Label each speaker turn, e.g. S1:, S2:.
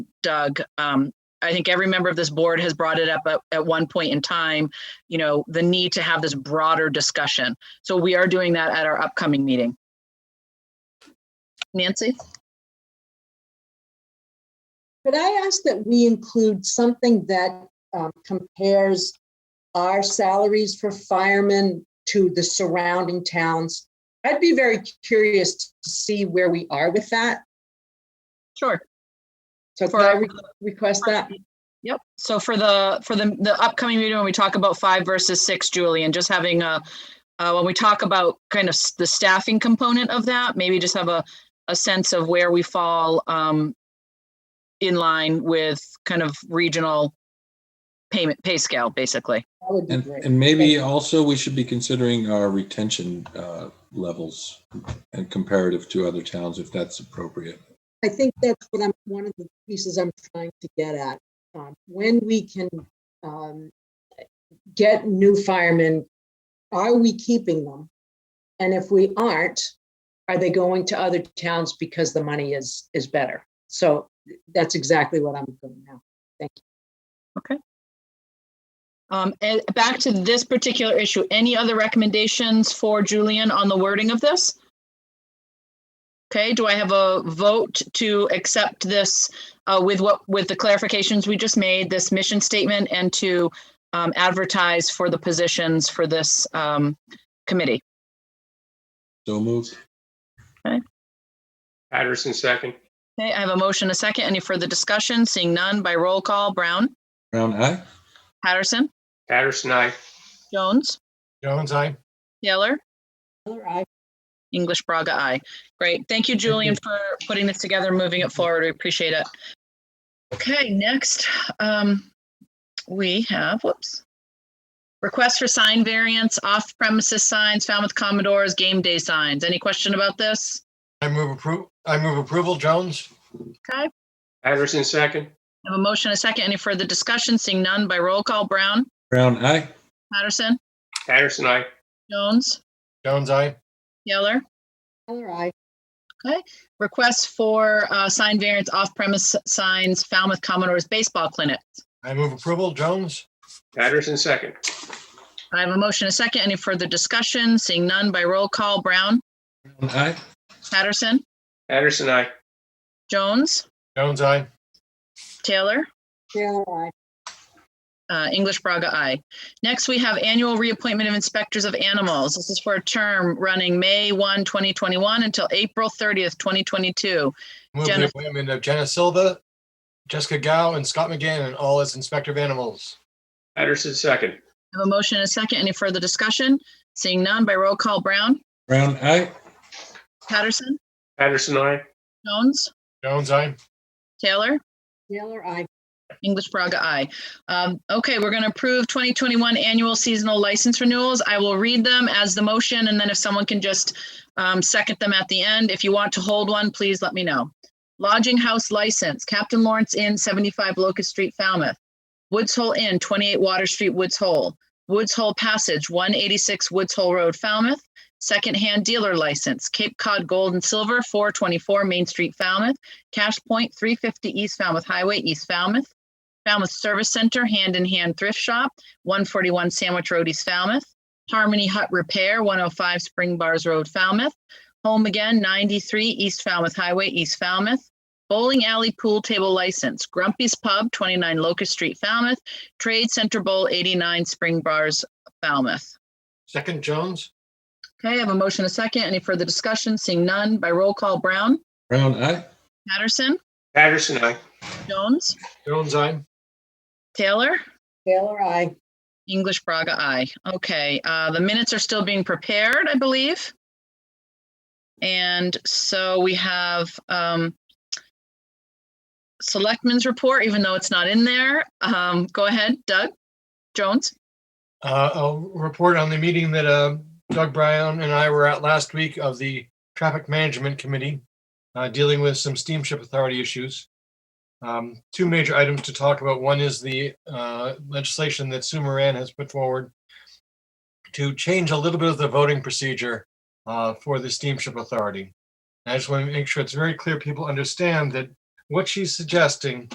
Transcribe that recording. S1: Doug. Um, I think every member of this board has brought it up at, at one point in time, you know, the need to have this broader discussion. So we are doing that at our upcoming meeting. Nancy?
S2: Could I ask that we include something that um, compares our salaries for firemen to the surrounding towns? I'd be very curious to see where we are with that.
S1: Sure.
S2: So could
S1: For-
S2: I re- request that?
S1: Yep, so for the, for the, the upcoming meeting, when we talk about five versus six, Julian, just having a, uh, when we talk about kind of s- the staffing component of that, maybe just have a, a sense of where we fall, um, in line with kind of regional payment, pay scale, basically.
S2: That would be
S3: And,
S2: great.
S3: and maybe also we should be considering our retention uh, levels and comparative to other towns if that's appropriate.
S2: I think that's what I'm, one of the pieces I'm trying to get at. Um, When we can um, get new firemen, are we keeping them? And if we aren't, are they going to other towns because the money is, is better? So that's exactly what I'm doing now.
S1: Um, and back to this particular issue, any other recommendations for Julian on the wording of this? Okay, do I have a vote to accept this uh, with what, with the clarifications we just made, this mission statement and to um, advertise for the positions for this um, committee?
S3: So moved.
S4: Patterson, second.
S1: Okay, I have a motion, a second. Any further discussion? Seeing none by roll call, Brown,
S3: Brown, aye?
S1: Patterson,
S4: Patterson, aye.
S1: Jones,
S5: Jones, I.
S1: Taylor,
S2: Taylor, I
S1: English Braga, I. Great. Thank you, Julian, for putting this together, moving it forward. We appreciate it. Okay, next, um, we have, whoops. Request for sign variance, off premises signs, Falmouth Commodores, game day signs. Any question about this?
S5: I move appro, I move approval. Jones,
S1: Okay,
S4: Patterson, second.
S1: I have a motion, and a second. Any further discussion? Seeing none by roll call. Brown,
S3: Brown, aye?
S1: Patterson,
S4: Patterson, aye.
S1: Jones,
S5: Jones, I.
S1: Yeller.
S2: Taylor, I
S1: Request for, uh, sign variance, off premise signs, Falmouth Commodores baseball clinic.
S5: I move approval. Jones,
S4: Patterson, second.
S1: I have a motion, a second. Any further discussion? Seeing none by roll call. Brown,
S3: Brown, aye?
S1: Patterson,
S4: Patterson, aye.
S1: Jones,
S5: Jones, I.
S1: Taylor,
S2: Taylor, I
S1: uh, English Braga, I. Next, we have annual reappointment of inspectors of animals. This is for a term running May 1, 2021 until April 30th, 2022.
S5: Move
S1: Jenna-
S5: the appointment of Jenna Silva, Jessica Gao, and Scott McGann, and all as Inspector of Animals.
S4: Patterson, second.
S1: I have a motion, a second. Any further discussion? Seeing none by roll call. Brown,
S3: Brown, aye?
S1: Patterson,
S4: Patterson, aye.
S1: Jones,
S5: Jones, I.
S1: Taylor,
S2: Taylor, I
S1: English Braga, I. Um, okay, we're going to approve 2021 annual seasonal license renewals. I will read them as the motion, and then if someone can just um, second them at the end. If you want to hold one, please let me know. Lodging house license, Captain Lawrence Inn, 75 Locust Street, Falmouth. Woods Hole Inn, 28 Water Street, Woods Hole. Woods Hole Passage, 186 Woods Hole Road, Falmouth. Secondhand dealer license, Cape Cod Gold and Silver, 424 Main Street, Falmouth. Cash Point, 350 East Falmouth Highway, East Falmouth. Falmouth Service Center, Hand in Hand Thrift Shop, 141 Sandwich Road, East Falmouth. Harmony Hut Repair, 105 Spring Bars Road, Falmouth. Home Again, 93 East Falmouth Highway, East Falmouth. Bowling Alley Pool Table License, Grumpy's Pub, 29 Locust Street, Falmouth. Trade Center Bowl, 89 Spring Bars, Falmouth.
S5: Second, Jones,
S1: Okay, I have a motion, a second. Any further discussion? Seeing none by roll call, Brown,
S3: Brown, aye?
S1: Patterson,
S4: Patterson, aye.
S1: Jones,
S5: Jones, I.
S1: Taylor.
S2: Taylor, I
S1: English Braga, I. Okay, uh, the minutes are still being prepared, I believe. And so we have, um, Selectmen's report, even though it's not in there. Um, go ahead, Doug Jones.
S5: Uh, I'll report on the meeting that uh, Doug Brown and I were at last week of the Traffic Management Committee, uh, dealing with some steamship authority issues. Um, Two major items to talk about. One is the uh, legislation that Sue Moran has put forward to change a little bit of the voting procedure uh, for the steamship authority. And I just want to make sure it's very clear people understand that what she's suggesting